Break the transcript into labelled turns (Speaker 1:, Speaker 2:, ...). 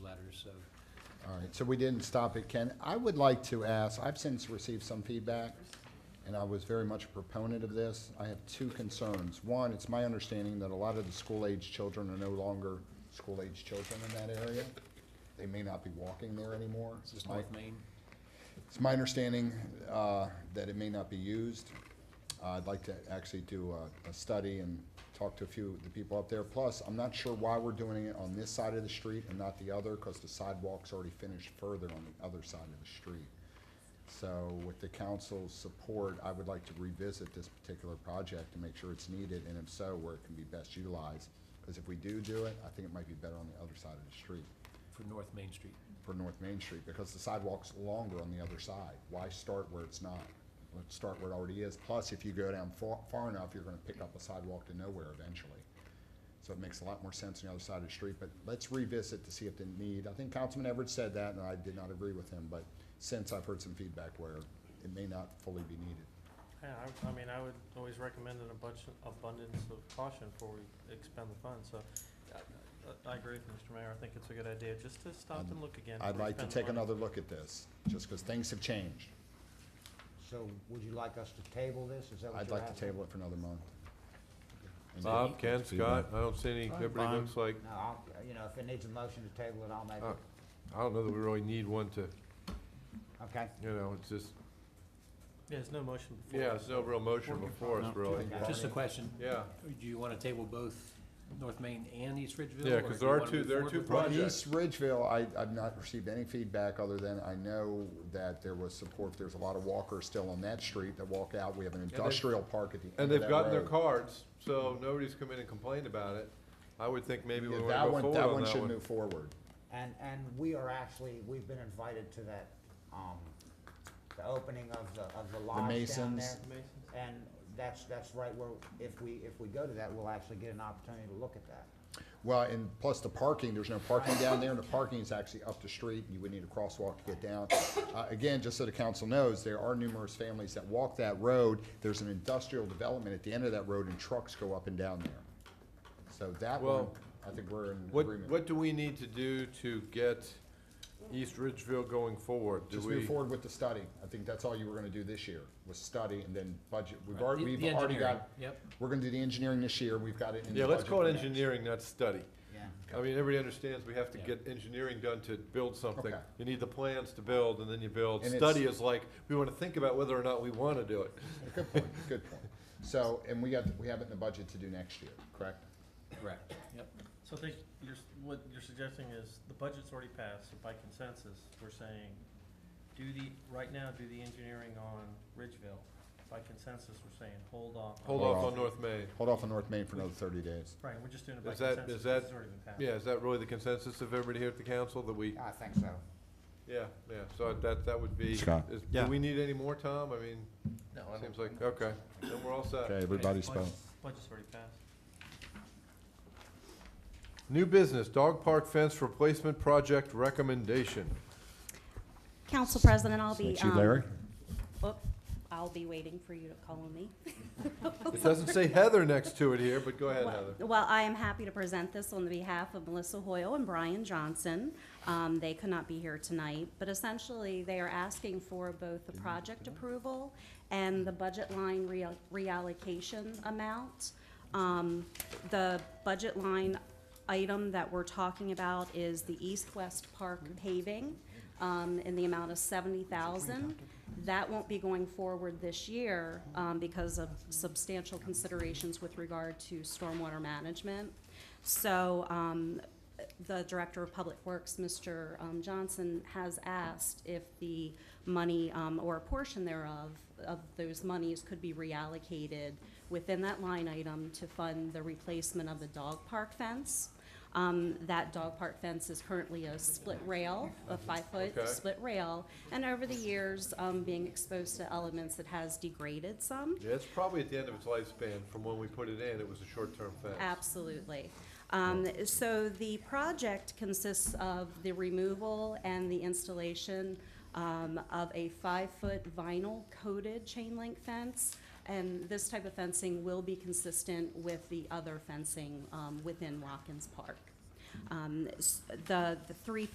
Speaker 1: so.
Speaker 2: All right, so we didn't stop it, Ken. I would like to ask, I've since received some feedback, and I was very much a proponent of this. I have two concerns. One, it's my understanding that a lot of the school-age children are no longer school-age children in that area. They may not be walking there anymore.
Speaker 1: This
Speaker 2: It's
Speaker 1: is
Speaker 2: my-
Speaker 1: North Main.
Speaker 2: It's my understanding uh, that it may not be used. Uh, I'd like to actually do a- a study and talk to a few of the people up there. Plus, I'm not sure why we're doing it on this side of the street and not the other, because the sidewalk's already finished further on the other side of the street. So with the council's support, I would like to revisit this particular project to make sure it's needed, and if so, where it can be best utilized. Because if we do do it, I think it might be better on the other side of the street
Speaker 1: For North Main Street.
Speaker 2: for North Main Street, because the sidewalk's longer on the other side. Why start where it's not? Let's start where it already is. Plus, if you go down far, far enough, you're gonna pick up a sidewalk to nowhere eventually. So it makes a lot more sense on the other side of the street, but let's revisit to see if the need, I think Councilman Everett said that, and I did not agree with him, but since I've heard some feedback where it may not fully be needed.
Speaker 3: Yeah, I, I mean, I would always recommend an abundance, abundance of caution before we expend the funds, so. I- I, I agree with Mr. Mayor, I think it's a good idea, just to stop and look again.
Speaker 2: I'd
Speaker 3: before we
Speaker 2: like to
Speaker 3: spend the
Speaker 2: take
Speaker 3: money.
Speaker 2: another look at this, just because things have changed.
Speaker 4: So would you like us to table this? Is that what
Speaker 2: I'd
Speaker 4: you're
Speaker 2: like to
Speaker 4: asking?
Speaker 2: table it for another month. And
Speaker 5: Bob,
Speaker 2: get
Speaker 5: Ken, Scott, I don't see any, everybody looks like,
Speaker 4: No, I'll, you know, if it needs a motion to table it, I'll make
Speaker 2: Uh,
Speaker 5: I
Speaker 4: it.
Speaker 5: I don't know that we really need one to,
Speaker 4: Okay.
Speaker 5: you know, it's just,
Speaker 3: Yeah, there's no motion before.
Speaker 5: yeah, there's no real motion before us, really.
Speaker 1: Just a question,
Speaker 5: Yeah,
Speaker 1: do you want to table both North Main and East Ridgeville?
Speaker 5: Yeah,
Speaker 1: or
Speaker 5: 'cause
Speaker 1: do
Speaker 5: there
Speaker 1: you
Speaker 5: are
Speaker 1: wanna
Speaker 5: two-
Speaker 1: move
Speaker 5: there are
Speaker 1: forward
Speaker 5: two
Speaker 1: with
Speaker 5: pro-
Speaker 1: one?
Speaker 2: Well,
Speaker 5: project.
Speaker 2: East Ridgeville, I, I've not received any feedback other than I know that there was support, there's a lot of walkers still on that street that walk out, we have an
Speaker 5: they-
Speaker 2: industrial park at the end
Speaker 5: and
Speaker 2: of
Speaker 5: they've
Speaker 2: that
Speaker 5: gotten their
Speaker 2: road.
Speaker 5: cards, so nobody's come in and complained about it. I would think maybe we
Speaker 2: Yeah,
Speaker 5: wanna
Speaker 2: That
Speaker 5: go
Speaker 2: one,
Speaker 5: forward
Speaker 2: that
Speaker 5: on
Speaker 2: one
Speaker 5: that
Speaker 2: should
Speaker 5: one.
Speaker 2: move forward.
Speaker 4: And, and we are actually, we've been invited to that, um, the opening of the, of the lodge down there.
Speaker 2: Masons.
Speaker 3: Masons?
Speaker 4: And that's, that's right where, if we, if we go to that, we'll actually get an opportunity to look at that.
Speaker 2: Well, and plus the parking, there's no parking down there, and the parking is actually up the street, and you would need a crosswalk to get down. Uh, again, just so the council knows, there are numerous families that walk that road, there's an industrial development at the end of that road, and trucks go up and down there. So that one,
Speaker 5: Well,
Speaker 2: I think we're in
Speaker 5: What,
Speaker 2: agreement.
Speaker 5: what do we need to do to get East Ridgeville going forward? Do
Speaker 2: Just
Speaker 5: we?
Speaker 2: move forward with the study. I think that's all you were gonna do this year, was study and then budget. We've
Speaker 1: Right.
Speaker 2: already,
Speaker 1: The-
Speaker 2: we've
Speaker 1: the
Speaker 2: already
Speaker 1: engineering,
Speaker 2: got.
Speaker 1: yep.
Speaker 2: We're gonna do the engineering this year. We've got it in the budget.
Speaker 5: Yeah, let's call it
Speaker 2: for next.
Speaker 5: engineering, not study.
Speaker 4: Yeah.
Speaker 5: I mean, everybody understands we have to
Speaker 1: Yeah.
Speaker 5: get engineering done to build something.
Speaker 2: Okay.
Speaker 5: You need the plans to build, and then you build.
Speaker 2: And
Speaker 5: Study is like, we want to think about whether or not we want to do it.
Speaker 2: Good point, good point. So, and we got, we have it in the budget to do next year, correct?
Speaker 1: Correct, yep.
Speaker 3: So I think you're, s- what you're suggesting is, the budget's already passed, so by consensus, we're saying, do the, right now, do the engineering on Ridgeville. By consensus, we're saying, hold off. on-
Speaker 5: Hold
Speaker 2: Hold
Speaker 5: off
Speaker 2: off.
Speaker 5: on North Main.
Speaker 2: Hold off on North Main for another thirty days.
Speaker 3: Right, we're just doing it by
Speaker 5: Is that- is
Speaker 3: consensus, it's
Speaker 5: that-
Speaker 3: already been passed.
Speaker 5: Yeah, is that really the consensus of everybody here at the council that we,
Speaker 4: I think so.
Speaker 5: yeah, yeah, so that, that would be.
Speaker 2: Scott.
Speaker 5: is-
Speaker 6: Yeah.
Speaker 5: Do we need any more, Tom? I mean,
Speaker 3: No, I don't-
Speaker 5: seems like, okay, then we're all set.
Speaker 2: Okay, everybody's spoke.
Speaker 3: Budget's already passed.
Speaker 5: New business, dog park fence replacement project recommendation.
Speaker 7: Council President, I'll be.
Speaker 2: Thank you,
Speaker 7: um,
Speaker 2: Larry.
Speaker 7: oop, I'll be waiting for you to call me.
Speaker 5: It doesn't say Heather next to it here, but go ahead, Heather.
Speaker 7: Well, I am happy to present this on the behalf of Melissa Hoyle and Brian Johnson. Um, They could not be here tonight, but essentially, they are asking for both the project approval and the budget line real- reallocation amount. Um, The budget line item that we're talking about is the east-west park
Speaker 2: Hmm.
Speaker 7: paving um, in the amount of seventy thousand. That won't be going forward this year um, because of substantial considerations with regard to stormwater management. So um, the Director of Public Works, Mr. um, Johnson, has asked if the money um, or a portion thereof of those monies could be reallocated within that line item to fund the replacement of the dog park fence. Um, That dog park fence is currently a split rail, a
Speaker 5: Okay.
Speaker 7: five-foot split rail, and over the years, um, being exposed to elements, it has degraded some.
Speaker 5: Yeah, it's probably at the end of its lifespan from when we put it in, it was a short-term fence.
Speaker 7: Absolutely. Um, so the project consists of the removal and the installation um, of a five-foot vinyl coated chain link fence. And this type of fencing will be consistent with the other fencing um, within Watkins Park. Um, s- the, the three